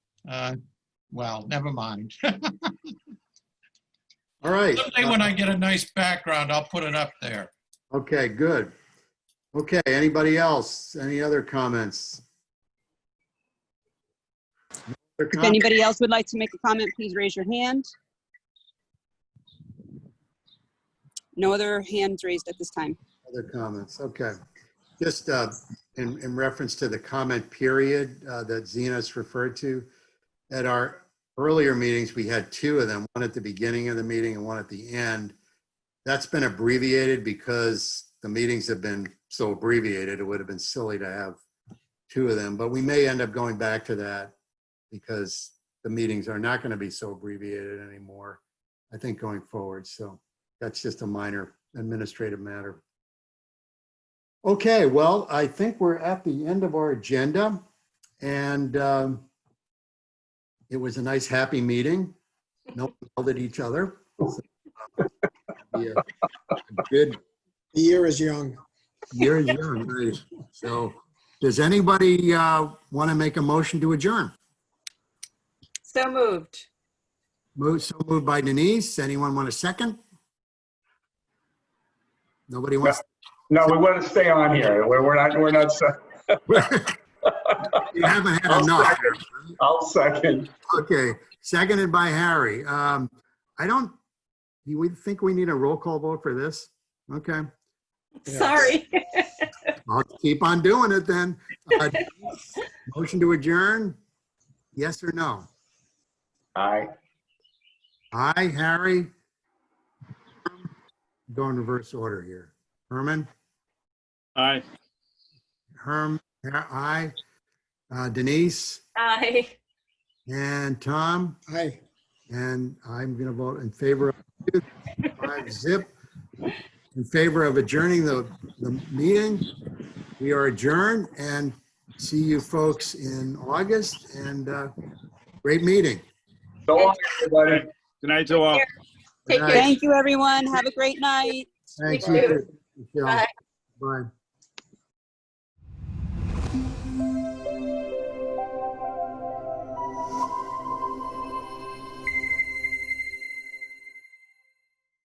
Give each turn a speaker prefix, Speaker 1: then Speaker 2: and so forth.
Speaker 1: Uh, Well, never mind.
Speaker 2: All right.
Speaker 1: Someday when I get a nice background, I'll put it up there.
Speaker 2: Okay, good. Okay, anybody else? Any other comments? No other
Speaker 3: If
Speaker 2: com-
Speaker 3: anybody else would like to make a comment, please raise your hand. No other hands raised at this time.
Speaker 2: Other comments, okay. Just uh, in, in reference to the comment period uh, that Zena's referred to, at our earlier meetings, we had two of them, one at the beginning of the meeting and one at the end. That's been abbreviated because the meetings have been so abbreviated, it would have been silly to have two of them, but we may end up going back to that because the meetings are not going to be so abbreviated anymore, I think going forward, so that's just a minor administrative matter. Okay, well, I think we're at the end of our agenda and um, it was a nice, happy meeting. No one yelled at each other. Yeah, Good
Speaker 4: The year is young.
Speaker 2: year, young, right? So does anybody want to make a motion to adjourn?
Speaker 5: So moved.
Speaker 2: Move, so moved by Denise. Anyone want a second? Nobody wants?
Speaker 6: No, we want to stay on here. We're, we're not, we're not, se-
Speaker 2: You haven't had
Speaker 6: I'll
Speaker 2: enough.
Speaker 6: second. I'll second.
Speaker 2: Okay, seconded by Harry. Um, I don't, you would think we need a roll call vote for this? Okay,
Speaker 4: Yeah.
Speaker 5: Sorry.
Speaker 2: I'll keep on doing it then. Uh, Motion to adjourn? Yes or no?
Speaker 6: Aye.
Speaker 2: Aye, Harry? Go in reverse order here. Herman?
Speaker 7: Aye.
Speaker 2: Herm, aye. Uh, Denise
Speaker 5: Aye.
Speaker 2: and Tom?
Speaker 4: Hi.
Speaker 2: And I'm going to vote in favor of five zip, in favor of adjourning the, the meeting. We are adjourned and see you folks in August and uh, great meeting.
Speaker 6: So long, everybody.
Speaker 7: Good night to all.
Speaker 5: Take
Speaker 2: Good
Speaker 5: care.
Speaker 2: night.
Speaker 3: Thank you, everyone. Have a great night.
Speaker 2: Thanks.
Speaker 5: You too.
Speaker 2: Michelle.
Speaker 5: Bye.
Speaker 2: Bye.